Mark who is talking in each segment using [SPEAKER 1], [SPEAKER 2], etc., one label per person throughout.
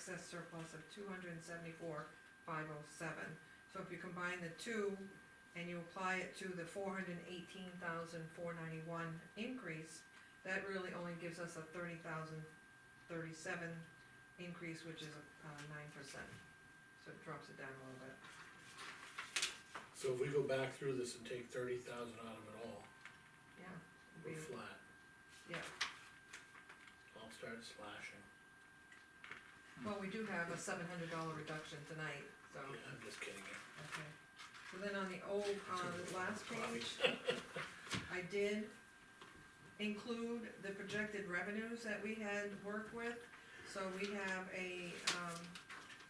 [SPEAKER 1] excess surplus of two hundred and seventy-four, five oh seven. So if you combine the two and you apply it to the four hundred and eighteen thousand, four ninety-one increase, that really only gives us a thirty thousand, thirty-seven increase, which is, uh, nine percent. So it drops it down a little bit.
[SPEAKER 2] So if we go back through this and take thirty thousand out of it all,
[SPEAKER 1] Yeah. it'd
[SPEAKER 2] we're
[SPEAKER 1] be-
[SPEAKER 2] flat.
[SPEAKER 1] Yeah.
[SPEAKER 2] I'll start slashing,
[SPEAKER 1] Well, we do have a seven hundred dollar reduction tonight, so,
[SPEAKER 2] yeah, I'm just kidding you.
[SPEAKER 1] okay. So then on the old, on the last page, I did include the projected revenues that we had worked with. So we have a, um,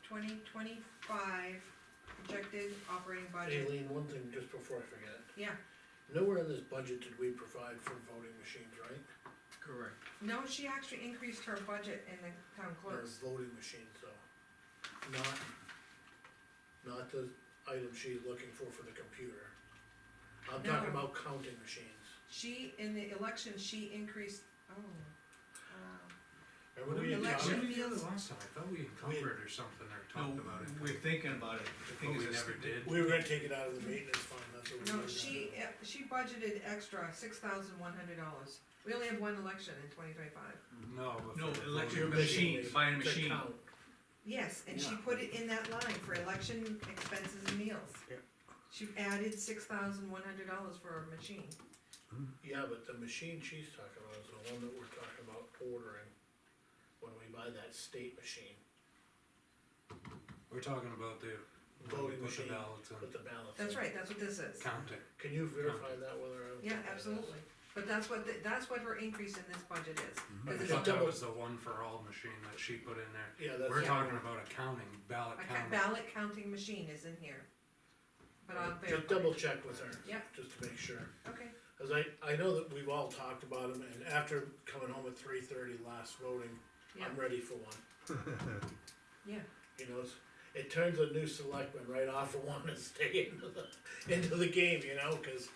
[SPEAKER 1] twenty twenty-five projected operating budget.
[SPEAKER 2] Aileen, one thing just before I forget it,
[SPEAKER 1] Yeah,
[SPEAKER 2] nowhere in this budget did we provide for voting machines, right?
[SPEAKER 3] Correct.
[SPEAKER 1] no, she actually increased her budget in the town
[SPEAKER 2] Or
[SPEAKER 1] clerk's.
[SPEAKER 2] voting machines, though. Not, not the item she's looking for for the computer. I'm talking
[SPEAKER 1] No.
[SPEAKER 2] about counting machines.
[SPEAKER 1] She, in the election, she increased, oh, um,
[SPEAKER 2] Remember we had
[SPEAKER 1] Election.
[SPEAKER 2] talked-
[SPEAKER 3] What did we do the last time? I thought we encumbered or something or talked
[SPEAKER 4] No,
[SPEAKER 3] about
[SPEAKER 4] we're
[SPEAKER 3] it.
[SPEAKER 4] thinking about it, the
[SPEAKER 3] But
[SPEAKER 4] thing
[SPEAKER 3] we
[SPEAKER 4] is,
[SPEAKER 3] never
[SPEAKER 4] it's-
[SPEAKER 3] did.
[SPEAKER 2] We were gonna take it out of the maintenance fund, that's what we were
[SPEAKER 1] No,
[SPEAKER 2] gonna do.
[SPEAKER 1] she, eh, she budgeted extra, six thousand one hundred dollars. We only have one election in twenty twenty-five.
[SPEAKER 3] No. but
[SPEAKER 4] no,
[SPEAKER 3] for the
[SPEAKER 4] electric
[SPEAKER 3] voting-
[SPEAKER 4] machine, buying a
[SPEAKER 2] To
[SPEAKER 4] machine,
[SPEAKER 2] count.
[SPEAKER 1] Yes, and she
[SPEAKER 4] Yeah.
[SPEAKER 1] put it in that line for election expenses and meals.
[SPEAKER 2] Yeah.
[SPEAKER 1] She added six thousand one hundred dollars for a machine.
[SPEAKER 2] Yeah, but the machine she's talking about is the one that we're talking about ordering when we buy that state machine,
[SPEAKER 3] We're talking about the.
[SPEAKER 2] Voting
[SPEAKER 3] Put the
[SPEAKER 2] machine.
[SPEAKER 3] ballots
[SPEAKER 2] with
[SPEAKER 3] in,
[SPEAKER 2] the balance.
[SPEAKER 1] That's right, that's what this is.
[SPEAKER 3] count it.
[SPEAKER 2] Can you verify that whether I'm?
[SPEAKER 1] Yeah, absolutely. But that's what, the- that's what her increase in this budget is.
[SPEAKER 2] Mm-hmm.
[SPEAKER 1] 'Cause
[SPEAKER 3] I
[SPEAKER 1] it's
[SPEAKER 3] thought
[SPEAKER 1] a-
[SPEAKER 3] that was the one for all machine that she put in there.
[SPEAKER 2] Yeah, that's.
[SPEAKER 3] We're talking about accounting, ballot
[SPEAKER 1] A ca-
[SPEAKER 3] counting.
[SPEAKER 1] ballot counting machine is in here. But I'll
[SPEAKER 2] Just
[SPEAKER 1] verify.
[SPEAKER 2] double check with her.
[SPEAKER 1] Yep.
[SPEAKER 2] Just to make sure,
[SPEAKER 1] Okay,
[SPEAKER 2] cause I, I know that we've all talked about them, and after coming home at three thirty last voting,
[SPEAKER 1] yeah,
[SPEAKER 2] I'm ready for one.
[SPEAKER 1] yeah.
[SPEAKER 2] You know, it's- it turns a new selectman right off of one to stay into the, into the game, you know, cause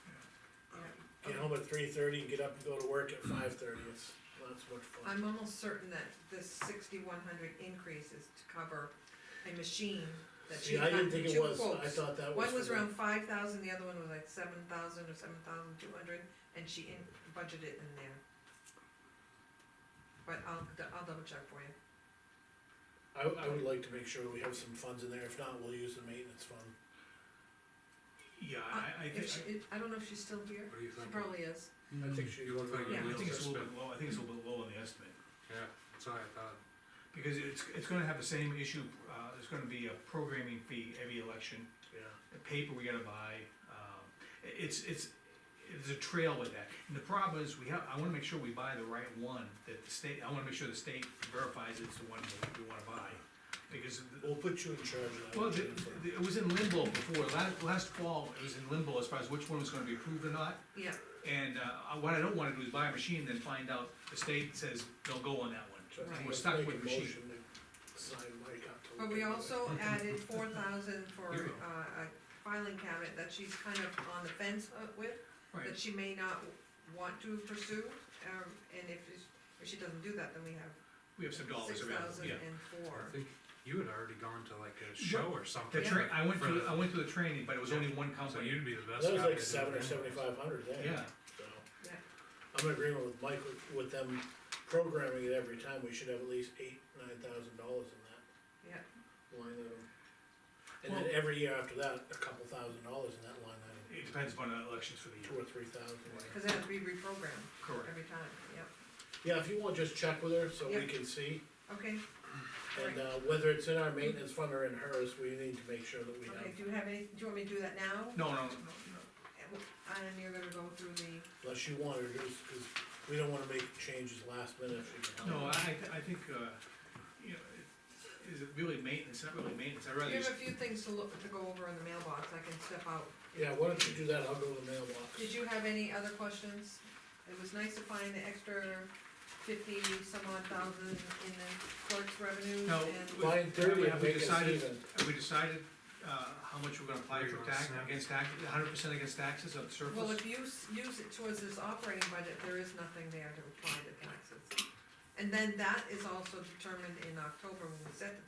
[SPEAKER 1] yeah.
[SPEAKER 2] get home at three thirty and get up and go to work at five thirty, it's, that's much fun.
[SPEAKER 1] I'm almost certain that this sixty-one hundred increase is to cover a machine that she
[SPEAKER 2] See,
[SPEAKER 1] got
[SPEAKER 2] I
[SPEAKER 1] from
[SPEAKER 2] didn't think it
[SPEAKER 1] two
[SPEAKER 2] was, I
[SPEAKER 1] quotes.
[SPEAKER 2] thought that was.
[SPEAKER 1] One
[SPEAKER 2] for
[SPEAKER 1] was
[SPEAKER 2] the-
[SPEAKER 1] around five thousand, the other one was like seven thousand or seven thousand two hundred, and she in, budgeted in there. But I'll, I'll double check for you.
[SPEAKER 2] I, I would like to make sure we have some funds in there, if not, we'll use the maintenance fund.
[SPEAKER 4] yeah, I, I
[SPEAKER 1] Uh, If she,
[SPEAKER 4] think,
[SPEAKER 1] if- I don't know if she's still here,
[SPEAKER 3] What do you
[SPEAKER 1] she
[SPEAKER 3] think?
[SPEAKER 1] probably is.
[SPEAKER 2] I think she.
[SPEAKER 3] You look like
[SPEAKER 4] Mm-hmm. I
[SPEAKER 3] you
[SPEAKER 1] Yeah.
[SPEAKER 4] think
[SPEAKER 3] wheels
[SPEAKER 4] it's a little
[SPEAKER 3] are
[SPEAKER 4] bit
[SPEAKER 3] spinning.
[SPEAKER 4] low, I think it's a little bit low on the estimate.
[SPEAKER 3] Yeah, that's what I thought.
[SPEAKER 4] Because it's, it's gonna have the same issue, uh, there's gonna be a programming fee every election,
[SPEAKER 2] Yeah,
[SPEAKER 4] the paper we gotta buy, um, i- it's, it's, it's a trail with that. And the problem is, we have, I wanna make sure we buy the right one, that the state, I wanna make sure the state verifies it's the one that we wanna buy. Because the-
[SPEAKER 2] we'll put you in charge of that.
[SPEAKER 4] Well, the,
[SPEAKER 2] Jennifer.
[SPEAKER 4] the- it was in limbo before, last, last fall, it was in limbo as far as which one was gonna be approved or not.
[SPEAKER 1] Yeah,
[SPEAKER 4] And, uh, what I don't wanna do is buy a machine, then find out the state says, don't go on that
[SPEAKER 2] So I
[SPEAKER 4] one.
[SPEAKER 1] Right.
[SPEAKER 2] think
[SPEAKER 4] We're
[SPEAKER 2] let's
[SPEAKER 4] stuck
[SPEAKER 2] make
[SPEAKER 4] with
[SPEAKER 2] a
[SPEAKER 4] machine.
[SPEAKER 2] motion to Sign Mike up to.
[SPEAKER 1] but
[SPEAKER 2] look
[SPEAKER 1] we
[SPEAKER 2] into it.
[SPEAKER 1] also added four thousand for,
[SPEAKER 4] You go.
[SPEAKER 1] uh, a filing cabinet that she's kind of on the fence uh, with. that
[SPEAKER 4] Right,
[SPEAKER 1] she may not want to pursue, um, and if, it's- if she doesn't do that, then we have
[SPEAKER 4] we have some dollars
[SPEAKER 1] six
[SPEAKER 4] available,
[SPEAKER 1] thousand
[SPEAKER 4] yeah.
[SPEAKER 1] and
[SPEAKER 3] I
[SPEAKER 1] four.
[SPEAKER 3] think you had already gone to like a show or something.
[SPEAKER 4] The train, I went
[SPEAKER 3] for
[SPEAKER 4] to,
[SPEAKER 3] the-
[SPEAKER 4] I went to the training, but it was only one
[SPEAKER 3] So
[SPEAKER 4] company,
[SPEAKER 3] you'd be the best guy
[SPEAKER 2] That was
[SPEAKER 3] to do it.
[SPEAKER 2] like seven or
[SPEAKER 3] anyways.
[SPEAKER 2] seventy-five hundred then.
[SPEAKER 4] yeah.
[SPEAKER 2] So,
[SPEAKER 1] Yeah.
[SPEAKER 2] I'm in agreement with Mike with- with them programming it every time, we should have at least eight, nine thousand dollars in that
[SPEAKER 1] Yeah,
[SPEAKER 2] line item. And then
[SPEAKER 4] Well-
[SPEAKER 2] every year after that, a couple thousand dollars in that line item,
[SPEAKER 4] It depends upon the elections for the
[SPEAKER 2] two
[SPEAKER 4] year.
[SPEAKER 2] or three thousand.
[SPEAKER 1] cause it has to be reprogrammed
[SPEAKER 4] Correct.
[SPEAKER 1] every time, yep,
[SPEAKER 2] Yeah, if you want, just check with her so we
[SPEAKER 1] Yeah.
[SPEAKER 2] can see,
[SPEAKER 1] okay,
[SPEAKER 2] and, uh, whether it's in our maintenance fund or in hers, we need to make sure that we
[SPEAKER 1] okay,
[SPEAKER 2] have,
[SPEAKER 1] do you have any, do you want me to do that now?
[SPEAKER 4] No, no, no, no.
[SPEAKER 1] And you're gonna go through the,
[SPEAKER 2] unless you want her to, cause we don't wanna make changes last minute if you can. help.
[SPEAKER 4] No, I, I think, uh, you know, it- is it really maintenance, not really maintenance, I'd rather
[SPEAKER 1] you have
[SPEAKER 4] just
[SPEAKER 1] a few things to look, to go over in the mailbox, I can step out.
[SPEAKER 2] Yeah, why don't you do that, I'll go to the mailbox.
[SPEAKER 1] Did you have any other questions? It was nice to find the extra fifty some odd thousand in the clerk's revenues
[SPEAKER 4] No,
[SPEAKER 1] and,
[SPEAKER 2] Line thirty,
[SPEAKER 4] We have- we
[SPEAKER 2] make us
[SPEAKER 4] decided-
[SPEAKER 2] even.
[SPEAKER 4] Have we decided, uh, how much we're gonna apply
[SPEAKER 3] Where you
[SPEAKER 4] for
[SPEAKER 3] wanna
[SPEAKER 4] tax,
[SPEAKER 3] snap?
[SPEAKER 4] against tax, hundred percent against taxes of
[SPEAKER 1] well,
[SPEAKER 4] surplus?
[SPEAKER 1] if you s- use it towards this operating budget, there is nothing there to apply to taxes. And then that is also determined in October when we set the